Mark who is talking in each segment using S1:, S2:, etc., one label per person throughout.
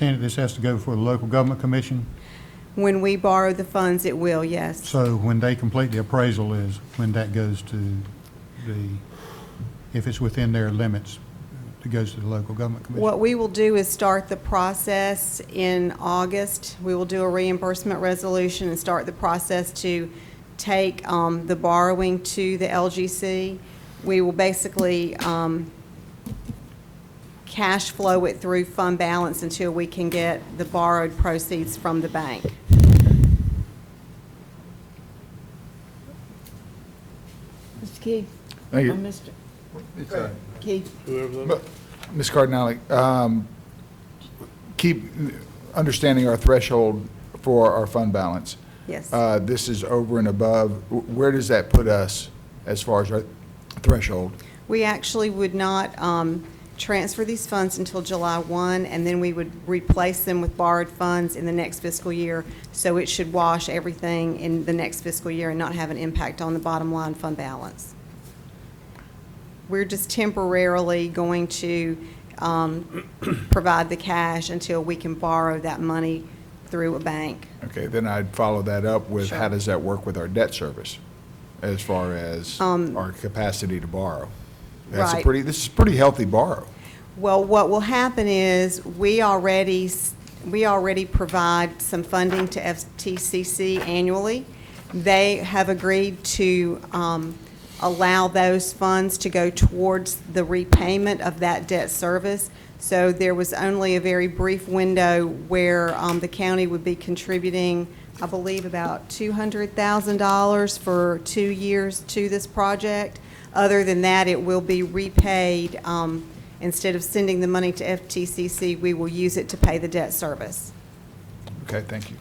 S1: understand that this has to go before the local government commission,
S2: When we borrow the funds, it will, yes.
S1: so when they complete the appraisal is when that goes to the, if it's within their limits, it goes to the local government commission.
S2: What we will do is start the process in August. We will do a reimbursement resolution and start the process to take um, the borrowing to the LGC. We will basically um, cash flow it through fund balance until we can get the borrowed proceeds from the bank.
S3: Mr. Key?
S4: Thank you.
S3: Or Mr. Key?
S4: Ms. Cardinale, um, keep understanding our threshold for our fund balance.
S2: Yes.
S4: Uh, This is over and above. Wh- Where does that put us as far as our threshold?
S2: We actually would not um, transfer these funds until July 1, and then we would replace them with borrowed funds in the next fiscal year. So it should wash everything in the next fiscal year and not have an impact on the bottom line fund balance. We're just temporarily going to um, provide the cash until we can borrow that money through a bank.
S4: Okay, then I'd follow that up with,
S2: Sure.
S4: how does that work with our debt service as far as our capacity to borrow? That's a
S2: Um, Right.
S4: pretty, this is pretty healthy borrow.
S2: Well, what will happen is, we already, s- we already provide some funding to FTCC annually. They have agreed to um, allow those funds to go towards the repayment of that debt service. So there was only a very brief window where um, the county would be contributing, I believe, about $200,000 for two years to this project. Other than that, it will be repaid um, Instead of sending the money to FTCC, we will use it to pay the debt service.
S4: Okay, thank you.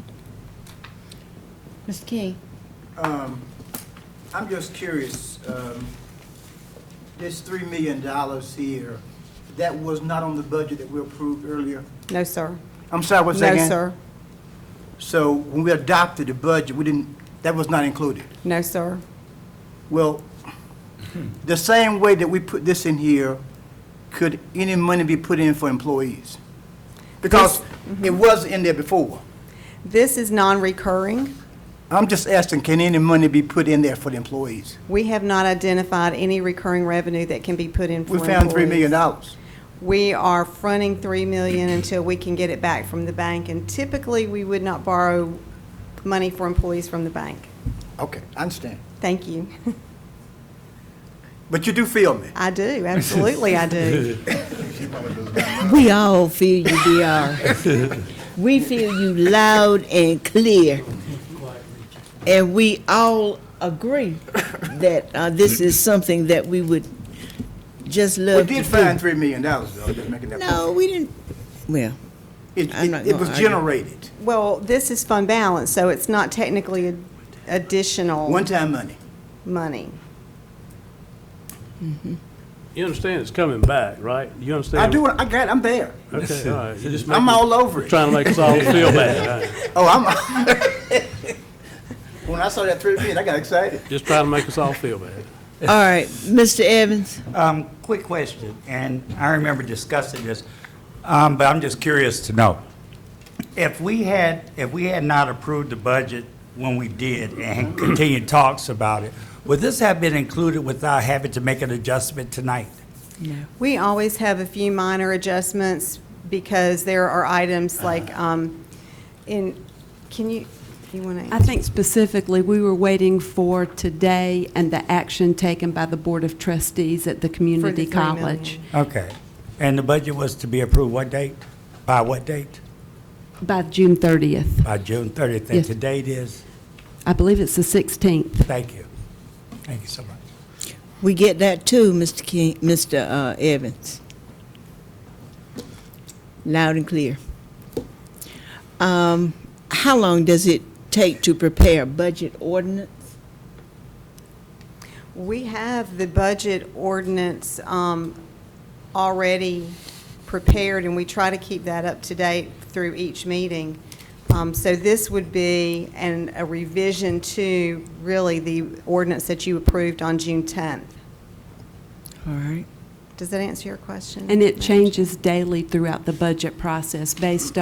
S3: Mr. Key?
S5: Um, I'm just curious, um, this $3 million here, that was not on the budget that we approved earlier?
S2: No, sir.
S5: I'm sorry, what's that
S2: No,
S5: again?
S2: sir.
S5: So when we adopted the budget, we didn't, that was not included?
S2: No, sir.
S5: Well, the same way that we put this in here, could any money be put in for employees? Because it was in there before.
S2: This is non-recurring.
S5: I'm just asking, can any money be put in there for the employees?
S2: We have not identified any recurring revenue that can be put in for
S5: We found $3 million.
S2: employees. We are fronting 3 million until we can get it back from the bank, and typically, we would not borrow money for employees from the bank.
S5: Okay, I understand.
S2: Thank you.
S5: But you do feel
S3: Uh,
S5: me?
S2: I do, absolutely I do.
S3: We all feel you, DR. We feel you loud and clear. And we all agree that uh, this is something that we would just
S5: We
S3: love to
S5: did find
S3: do.
S5: $3 million, though, just making that point.
S3: No, we didn't, well,
S5: It,
S3: I'm not
S5: it- it
S3: gonna
S5: was
S3: argue.
S5: generated,
S2: Well, this is fund balance, so it's not technically ad- additional
S5: one-time money.
S2: money.
S6: You understand it's coming back, right? You understand?
S5: I do, I got, it, I'm there.
S6: Okay, all right. You're just
S5: I'm
S6: making-
S5: all over it.
S6: Trying to make us all feel bad. all right.
S5: Oh, I'm, when I saw that three million, I got excited.
S6: Just trying to make us all feel bad.
S3: all right, Mr. Evans?
S7: Um, Quick question, and I remember discussing this, um, but I'm just curious to know. If we had, if we had not approved the budget when we did and continued talks about it, would this have been included without having to make an adjustment tonight?
S2: We always have a few minor adjustments because there are items like, um, in, can you, you want
S8: I
S2: to?
S8: think specifically, we were waiting for today and the action taken by the Board of Trustees at the community
S2: three
S8: college
S7: Okay. And the budget was to be approved what date? By what date?
S8: by June 30th.
S7: By June 30th. And
S8: Yes.
S7: today it is?
S8: I believe it's the 16th.
S7: Thank you. Thank you so much.
S3: We get that too, Mr. King, Mr. uh, Evans. Loud and clear. Um, How long does it take to prepare a budget ordinance?
S2: We have the budget ordinance um, already prepared, and we try to keep that up to date through each meeting. Um, So this would be an, a revision to really the ordinance that you approved on June 10th.
S3: All right.
S2: Does that answer your question?
S8: And it changes daily throughout the budget process based on.